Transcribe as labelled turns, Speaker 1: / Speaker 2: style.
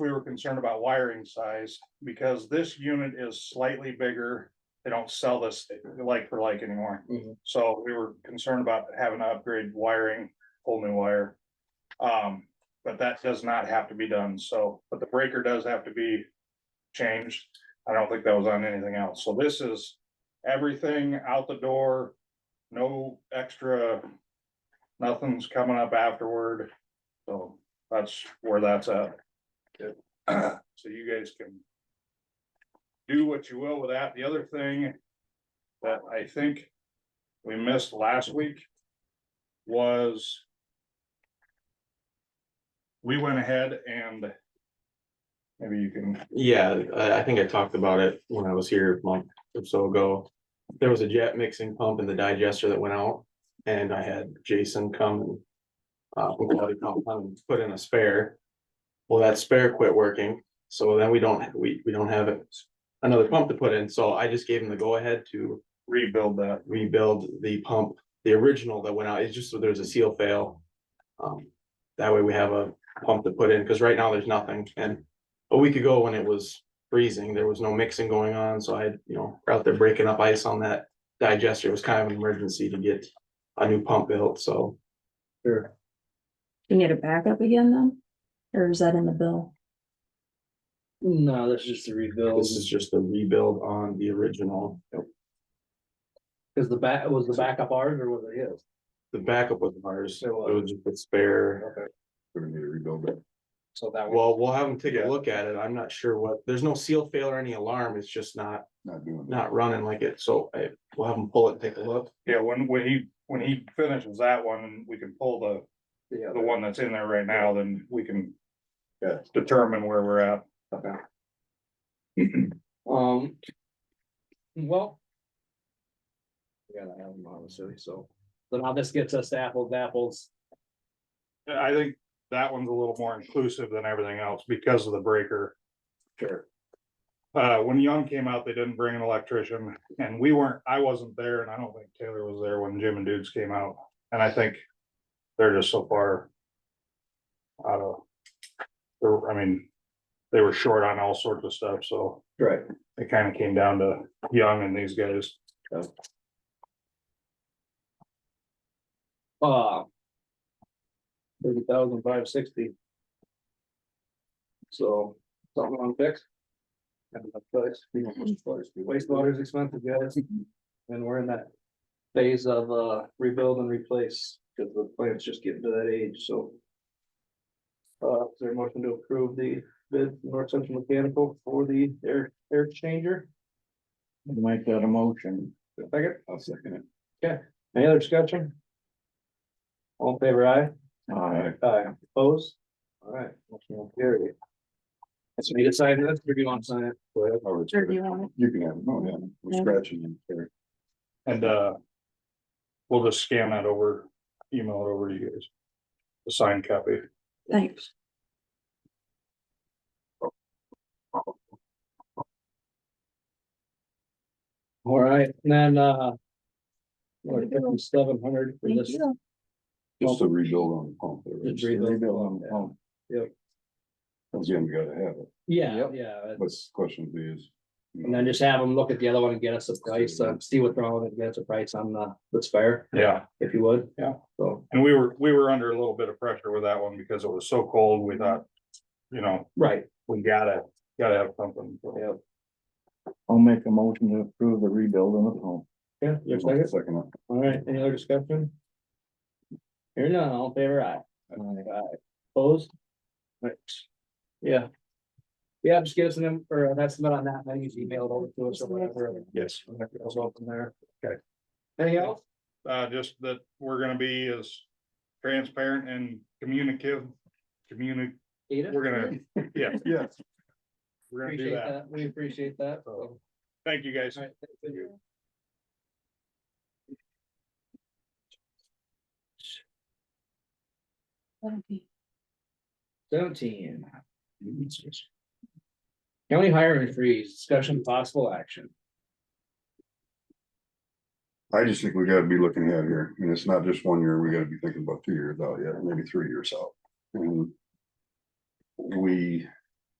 Speaker 1: we were concerned about wiring size, because this unit is slightly bigger. They don't sell this like for like anymore.
Speaker 2: Mhm.
Speaker 1: So we were concerned about having to upgrade wiring, whole new wire. Um, but that does not have to be done, so, but the breaker does have to be changed. I don't think that was on anything else, so this is everything out the door, no extra. Nothing's coming up afterward, so that's where that's at. So you guys can. Do what you will with that. The other thing that I think we missed last week was. We went ahead and. Maybe you can,
Speaker 2: Yeah, I, I think I talked about it when I was here a month or so ago. There was a jet mixing pump in the digester that went out and I had Jason come and. Uh, from Quality Pump come and put in a spare. Well, that spare quit working, so then we don't, we, we don't have another pump to put in, so I just gave him the go ahead to
Speaker 1: rebuild that.
Speaker 2: rebuild the pump. The original that went out, it's just, so there's a seal fail. Um, that way we have a pump to put in, because right now there's nothing, and a week ago when it was freezing, there was no mixing going on, so I, had you know, we're out there breaking up ice on that digester, it was kind of an emergency to get a new pump built, so. Sure.
Speaker 3: You need a backup again then? Or is that in the bill?
Speaker 4: No, that's just a rebuild,
Speaker 2: This is just a rebuild on the original,
Speaker 4: cause the back, was the backup ours or was it his?
Speaker 2: the backup was ours, it
Speaker 4: It was.
Speaker 2: was just a spare.
Speaker 4: Okay.
Speaker 5: We're gonna need to rebuild it.
Speaker 4: So that was,
Speaker 2: Well, we'll have them take
Speaker 1: Yeah.
Speaker 2: a look at it, I'm not sure what, there's no seal fail or any alarm, it's just not
Speaker 5: Not doing that.
Speaker 2: not running like it, so I, we'll have them pull it, and take a look.
Speaker 1: Yeah, when, when he, when he finishes that one, and we can pull the,
Speaker 4: yeah,
Speaker 1: the one that's in there right now, then we can.
Speaker 5: Yeah.
Speaker 1: Determine where we're at.
Speaker 4: okay. Um. Well. Yeah, I have them obviously, so, so now this gets us to apples, to apples,
Speaker 1: I think that one's a little more inclusive than everything else because of the breaker.
Speaker 4: sure,
Speaker 1: Uh, when Young came out, they didn't bring an electrician and we weren't, I wasn't there and I don't think Taylor was there when Jim and Dudes came out. And I think they're just so far. Out of, they're- I mean, they were short on all sorts of stuff, so
Speaker 4: right,
Speaker 1: it kind of came down to Young and these guys.
Speaker 4: uh. Thirty thousand five sixty. So, something on fix. And the place, you know, wastewater's- wastewater's expensive, guys, and we're in that phase of uh rebuild and replace, because the plant's just getting to that age, so. Uh, is there a motion to approve the bid, North Central Mechanical for the air, air exchanger?
Speaker 5: Make that a motion.
Speaker 4: Second,
Speaker 5: I'll second
Speaker 4: any other discussion? All in favor aye?
Speaker 5: it. Alright.
Speaker 4: Aye, opposed? All right, motion will carry. So you decide this, or do you want to sign it?
Speaker 3: Sure, do you want it?
Speaker 5: You can have, it. no, yeah,
Speaker 3: Yeah.
Speaker 5: we're scratching it here.
Speaker 1: And, uh. We'll just scan that over, email it over to you guys. The signed copy.
Speaker 3: Thanks.
Speaker 4: All right, and then, uh. Seven hundred for
Speaker 3: Thank
Speaker 4: this,
Speaker 3: you.
Speaker 5: Just to rebuild on the pump. there, right?
Speaker 4: Just rebuild.
Speaker 5: on the pump.
Speaker 4: Yep.
Speaker 5: Again, we gotta have it,
Speaker 4: yeah,
Speaker 5: Yep.
Speaker 4: yeah,
Speaker 5: but the question is.
Speaker 4: and then just have them look at the other one and get us a price, uh, see what's wrong with it, get us a price on the, the spare,
Speaker 1: Yeah.
Speaker 4: if you would.
Speaker 1: Yeah.
Speaker 4: So,
Speaker 1: And we were, we were under a little bit of pressure with that one because it was so cold, we thought, you know,
Speaker 4: right,
Speaker 1: we gotta, gotta have something.
Speaker 4: yeah,
Speaker 5: I'll make a motion to approve the rebuild on the pump.
Speaker 4: yeah, you have a second?
Speaker 5: Second. it.
Speaker 4: all right, any other discussion? Here none, all in favor aye. Aye. Opposed? Right. Yeah. Yeah, just give us an, em- or an estimate on that, and then you can email it over to us or whatever.
Speaker 1: Yes.
Speaker 4: Goes up from there.
Speaker 1: Okay.
Speaker 4: Anything else?
Speaker 1: Uh, just that we're gonna be as transparent and communicative, communi,
Speaker 4: Ada?
Speaker 1: we're gonna, yeah,
Speaker 5: Yes.
Speaker 1: we're gonna do
Speaker 4: Appreciate
Speaker 1: that.
Speaker 4: that, we appreciate that. so.
Speaker 1: Thank you, guys.
Speaker 4: All right, thank you.
Speaker 3: That'll be-
Speaker 4: Seventeen. County hiring freeze, discussion possible action.
Speaker 5: I just think we gotta be looking ahead here, and it's not just one year, we gotta be thinking about two years out yet, maybe three years out. And We